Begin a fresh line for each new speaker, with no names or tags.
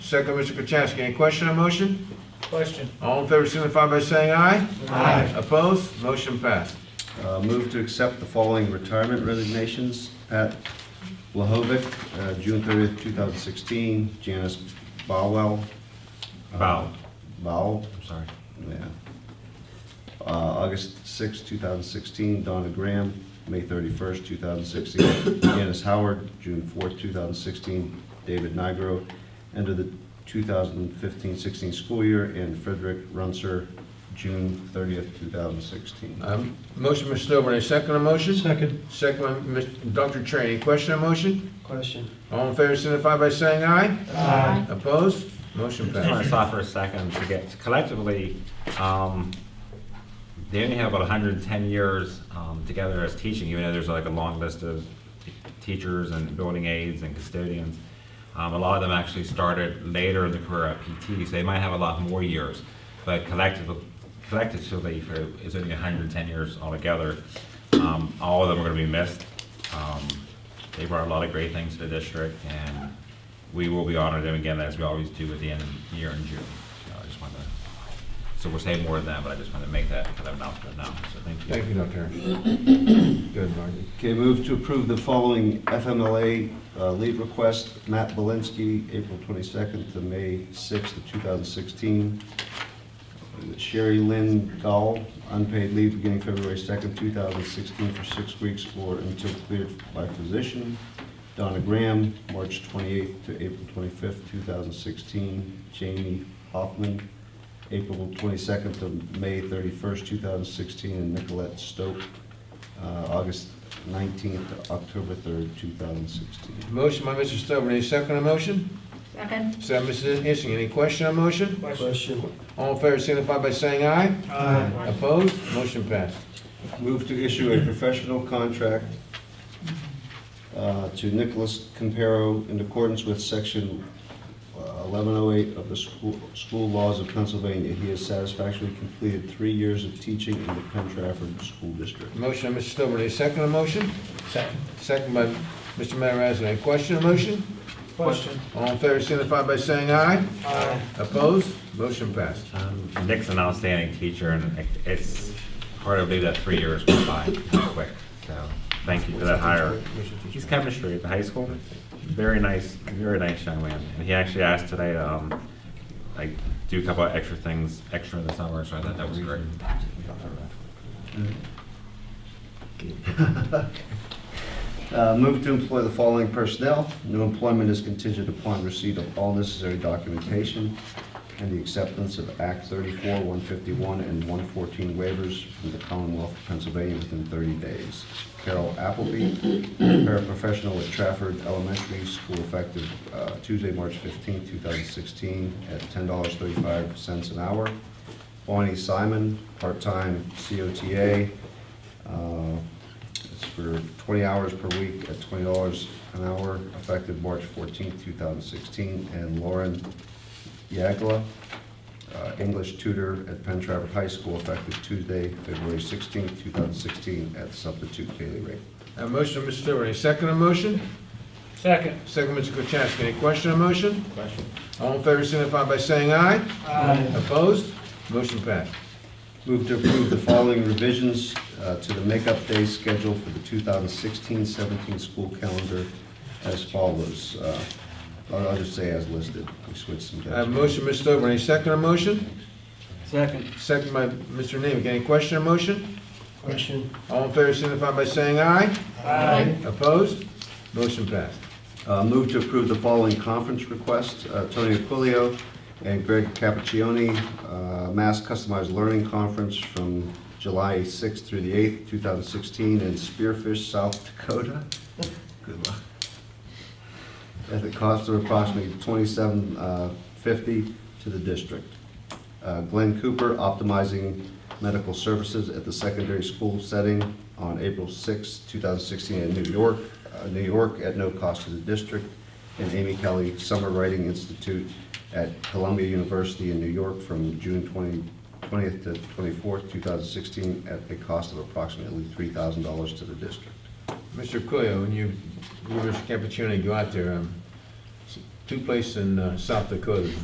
Second, Mr. Kachasik. Any question on motion?
Question.
All in favor signify by saying aye. Aye. Opposed? Motion passed.
Uh, Move to accept the following retirement resignations. Pat Lahovic, uh, June 30th, 2016. Janice Bowell. uh,
Bow.
Bowell,
I'm sorry.
yeah. Uh, August 6th, 2016. Donna Graham, May 31st, 2016. Janice Howard, June 4th, 2016. David Nigro, end of the 2015-16 school year. And Frederick Runcer, June 30th, 2016.
Um, Motion, Mr. Stovall. Any second on motion?
Second.
Second, by Mr. Dr. Train. Any question on motion?
Question.
All in favor signify by saying aye.
Aye.
Opposed? Motion
Just want
passed.
to stop for a second to get collectively, um, they only have about hundred and ten years, um, together as teaching, even though there's like a long list of teachers and building aides and custodians. Um, a lot of them actually started later in the career at PT, so they might have a lot more years. But collectively, collectively, for, it's only hundred and ten years altogether. Um, all of them are gonna be missed. Um, they brought a lot of great things to the district and we will be honoring them again as we always do at the end of the year in June. So I just wanted to so we'll say more than that, but I just wanted to make that kind of announcement now, so thank you.
Thank you, Dr. Train. Good, Margie.
Okay, move to approve the following FMLA uh, leave request. Matt Belinsky, April 22nd to May 6th of 2016. Sherry Lynn Dahl, unpaid leave beginning February 2nd, 2016 for six weeks or until cleared by physician. Donna Graham, March 28th to April 25th, 2016. Jamie Hoffman, April 22nd to May 31st, 2016. And Nicolette Stoke, uh, August 19th to October 3rd, 2016.
Motion by Mr. Stovall. Any second on motion?
Second.
Second, Mrs. Issing. Any question on motion?
Question.
All in favor signify by saying aye.
Aye.
Opposed? Motion passed.
Move to issue a professional contract uh, to Nicholas Campero in accordance with section uh, 1108 of the school school laws of Pennsylvania. He has satisfactorily completed three years of teaching in the Penn Trafford School District.
Motion by Mr. Stovall. Any second on motion?
Second.
Second by Mr. Matarazza. Any question on motion?
Question.
All in favor signify by saying aye.
Aye.
Opposed? Motion passed.
Um, Nick's an outstanding teacher, and it's hard to believe that three years went by that quick, so thank you for that hire. He's chemistry at the high school, very nice, very nice young man, and he actually asked today, to, um, like, do a couple of extra things, extra in the summer, so I thought that was great.
Uh, Move to employ the following personnel. New employment is contingent upon receipt of all necessary documentation and the acceptance of Act 34, 151, and 114 waivers from the Commonwealth of Pennsylvania within 30 days. Carol Appleby, paraprofessional at Trafford Elementary School, effective uh, Tuesday, March 15, 2016, at $10.35 an hour. Bonnie Simon, part-time COTA, uh, it's for 20 hours per week at $20 an hour, effective March 14, 2016. And Lauren Yagla, uh, English tutor at Penn Trafford High School, effective Tuesday, February 16, 2016, at substitute daily rate.
A motion, Mr. Stovall. Any second on motion?
Second.
Second, Mr. Kachasik. Any question on motion? Question. All in favor signify by saying aye.
Aye.
Opposed? Motion passed.
Move to approve the following revisions uh, to the makeup day schedule for the 2016-17 school calendar as follows. Uh, I'll I'll just say as listed. We switched some.
I have a Uh, motion, Mr. Stovall. Any second on motion?
Second.
Second by Mr. Nemic. Any question on motion?
Question.
All in favor signify by saying aye.
Aye.
Opposed? Motion passed.
Uh, Move to approve the following conference requests, Uh, Tony Aquilio and Greg Cappuccioni, uh, Mass Customized Learning Conference from July 6th through the 8th, 2016, in Spearfish, South Dakota. Good luck. At the cost of approximately $27.50 to the district. Uh, Glenn Cooper, Optimizing Medical Services at the Secondary School Setting on April 6, 2016 in New York, uh, New York at no cost to the district. And Amy Kelly, Summer Writing Institute at Columbia University in New York from June 20 20th to 24th, 2016, at a cost of approximately $3,000 to the district.
Mr. Coelho, when you, you, Mr. Capuccioni, go out there, um, two places in uh, South Dakota